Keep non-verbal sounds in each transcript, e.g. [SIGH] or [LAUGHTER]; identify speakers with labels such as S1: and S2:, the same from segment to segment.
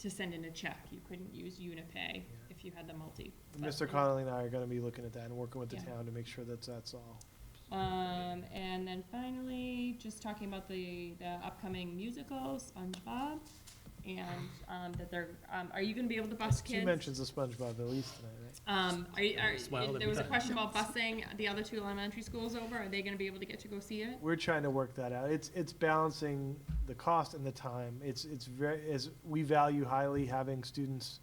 S1: to send in a check. You couldn't use Unipay if you had the multi. but-
S2: Mr. Connolly and I are gonna be looking at that and working with the
S1: Yeah.
S2: town to make sure that that's all.
S1: Um, and then finally, just talking about the, the upcoming musical, SpongeBob, and, um, that they're, um, are you gonna be able to bus
S2: Two
S1: kids?
S2: mentions of SpongeBob at least tonight, right?
S1: Um, are, you-
S3: Smile
S1: are,
S3: every
S1: there was a
S3: time.
S1: question about busing the other two elementary schools over, are they gonna be able to get to go see it?
S2: We're trying to work that out. It's, it's balancing the cost and the time. It's, it's very, as, we value highly having students,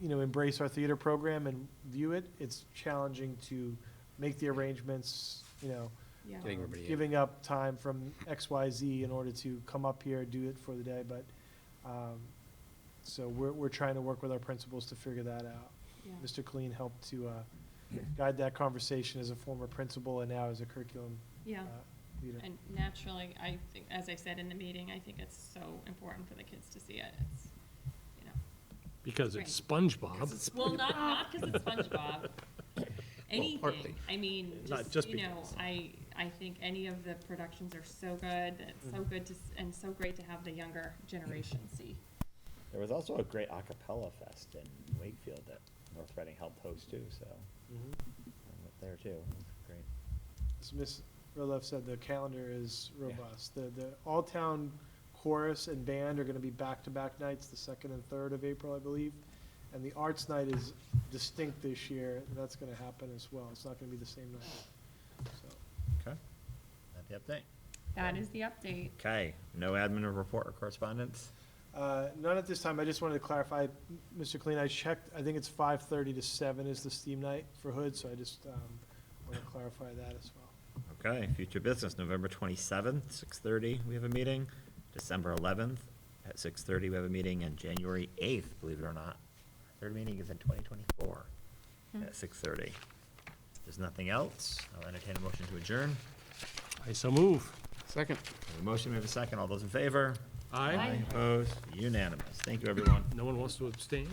S2: you know, embrace our theater program and view it. It's challenging to make the arrangements, you know,
S1: Yeah.
S3: Getting everybody in.
S2: um, giving up time from X, Y, Z in order to come up here, do it for the day, but, um, so we're, we're trying to work with our principals to figure that out.
S1: Yeah.
S2: Mr. Colleen helped to, uh, guide that conversation as a former principal and now as a curriculum,
S1: Yeah,
S2: uh, leader.
S1: and naturally, I think, as I said in the meeting, I think it's so important for the kids to see it, it's, you know.
S3: Because it's SpongeBob,
S1: Well, not, not because it's SpongeBob.
S3: [LAUGHS]
S1: Anything,
S3: partly.
S1: I mean,
S3: Not
S1: just,
S3: just
S1: you know,
S3: because.
S1: I, I think any of the productions are so good, it's
S3: Mm-hmm.
S1: so good to, s- and so great to have the younger generation see.
S4: There was also a great a cappella fest in Wakefield that North Reading helped host too, so
S2: Mhm.
S4: I'm up there too. Great.
S2: As Ms. Roloff said, the calendar is robust. The, the all-town chorus and band are gonna be back-to-back nights, the second and third of April, I believe. And the arts night is distinct this year, that's gonna happen as well. It's not gonna be the same night, so.
S4: Okay. That the update?
S1: That is the update.
S4: Okay, no admin or report or correspondence?
S2: Uh, None at this time. I just wanted to clarify, M- Mr. Clean, I checked, I think it's 5:30 to 7 is the steam night for Hood, so I just want to clarify that as well.
S4: Okay, future business, November twenty-seventh, six thirty, we have a meeting. December eleventh, at six thirty, we have a meeting, and January eighth, believe it or not. Third meeting is in twenty twenty-four, at six thirty. There's nothing else. I'll entertain a motion to adjourn.
S3: I so move.
S5: Second.
S4: We have a motion, we have a second. All those in favor?
S3: Aye.
S4: Opposed? Unanimous. Thank you, everyone.
S3: No one wants to abstain?